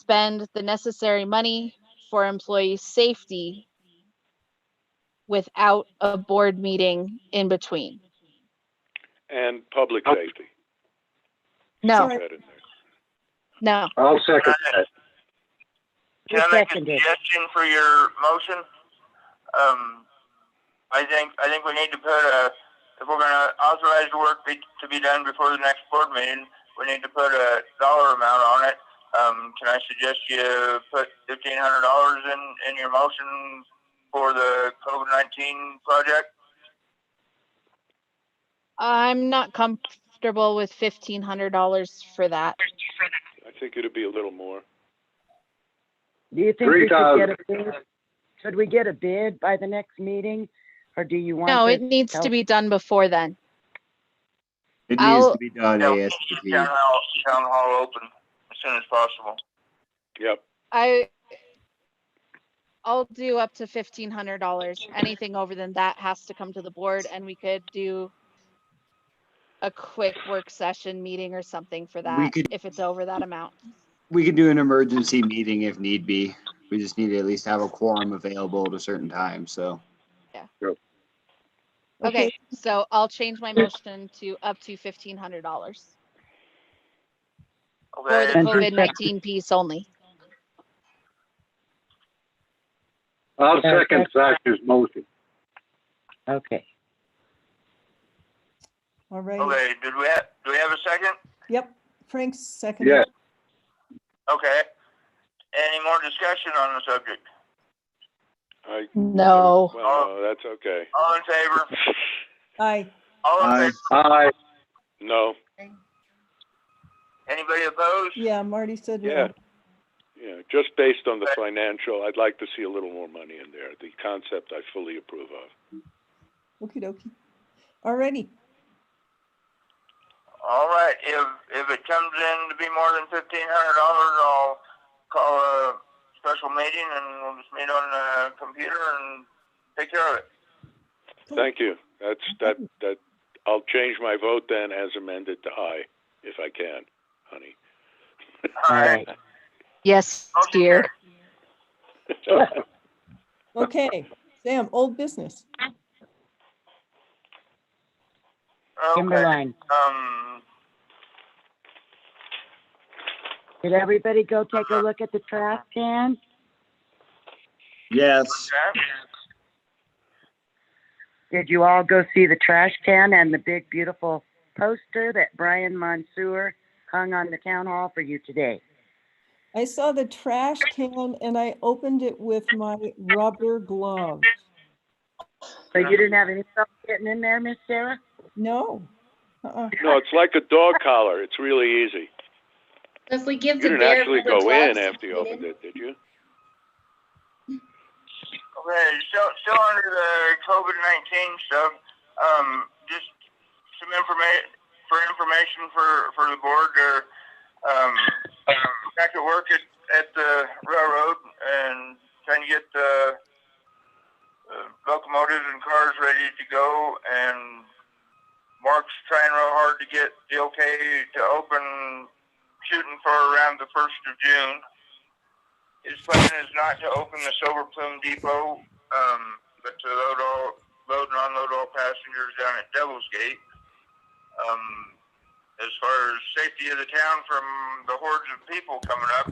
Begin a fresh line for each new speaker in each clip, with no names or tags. spend the necessary money for employee safety without a board meeting in between.
and public safety.
No,
Put that in there.
no.
I'll second that.
Can I make a
Seconded.
suggestion for your motion? Um, I think, I think we need to put a, if we're gonna authorize the work be, to be done before the next board meeting, we need to put a dollar amount on it. Um, can I suggest you put fifteen hundred dollars in, in your motion for the COVID nineteen project?
I'm not comfortable with fifteen hundred dollars for that.
I think it'd be a little more.
Do you think
Three
we could get a
thousand.
bid? Could we get a bid by the next meeting? Or do you want?
No,
to-
it needs to
help?
be done before then.
It needs
I'll-
to be done
Yeah,
ASAP.
Town hall, town hall open as soon as possible.
Yep,
I I'll do up to fifteen hundred dollars. Anything over than that has to come to the board and we could do a quick work session meeting or something for that,
could-
if it's over that amount.
We can do an emergency meeting if need be. We just need to at least have a quorum available at a certain time, so.
Okay, so I'll change my motion to up to fifteen hundred dollars for the
Okay,
And-
COVID nineteen piece only.
I'll
Okay.
second Sasha's motion.
Okay.
All right.
okay, did we have, do we have a second?
Yep. Frank's second.
Yes,
Okay. Any more discussion on the subject?
I.
No.
Well, no, that's okay.
All in favor?
Aye.
All in
Aye.
favor?
aye,
No,
Anybody opposed?
Yeah, Marty said
yeah.
no.
Yeah, just based on the financial, I'd like to see a little more money in there. The concept I fully approve of.
Okey dokey. Alrighty.
All right, if, if it comes in to be more than fifteen hundred dollars, I'll call a special meeting and we'll just meet on the computer and take care of it.
Thank you. That's, that, that, I'll change my vote then as amended to aye, if I can, honey.
All right.
Yes, dear.
Okay. Sam, old business.
Okay,
Timberline,
um,
did everybody go take a look at the trash can?
Yes,
okay.
Did you all go see the trash can and the big beautiful poster that Brian Mansour hung on the town hall for you today?
I saw the trash can and I opened it with my rubber glove.
So you didn't have any trouble getting in there, Miss Sarah?
No. Uh-uh.
No, it's like a dog collar. It's really easy.
So if we
You
give the
didn't
bear.
actually
rubber
go in
gloves,
after you
we
opened
didn't-
it, did you?
Okay, still, still under the COVID nineteen stuff, um, just some information, for information for, for the board, uh, um, back at work at, at the railroad and trying to get the uh, locomotives and cars ready to go and Mark's trying real hard to get the okay to open shooting for around the first of June. His plan is not to open the Silver Plume Depot, um, but to load all, load and unload all passengers down at Devil's Gate. Um, as far as safety of the town from the hordes of people coming up,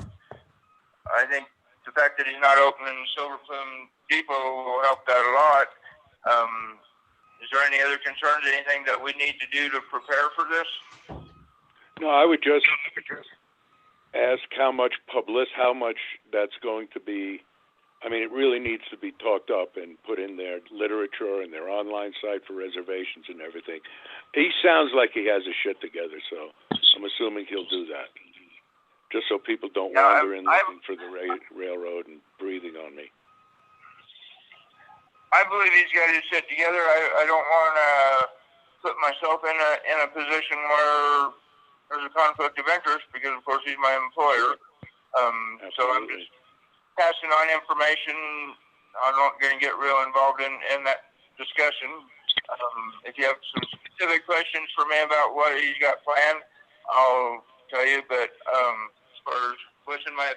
I think the fact that he's not opening Silver Plume Depot will help that a lot. Um, is there any other concerns, anything that we need to do to prepare for this?
No, I would just ask how much public, how much that's going to be. I mean, it really needs to be talked up and put in their literature and their online site for reservations and everything. He sounds like he has his shit together, so I'm assuming he'll do that. Just so people don't
Yeah, I-
wander in
I-
looking for the ra- railroad and breathing on me.
I believe he's got his shit together. I, I don't want to put myself in a in a position where there's a conflict of interest because, of course, he's my employer. Um, so I'm
Absolutely.
just passing on information. I'm not going to get real involved in in that discussion. Um, if you have some specific questions for me about what he's got planned, I'll tell you. But um, as far as what's in my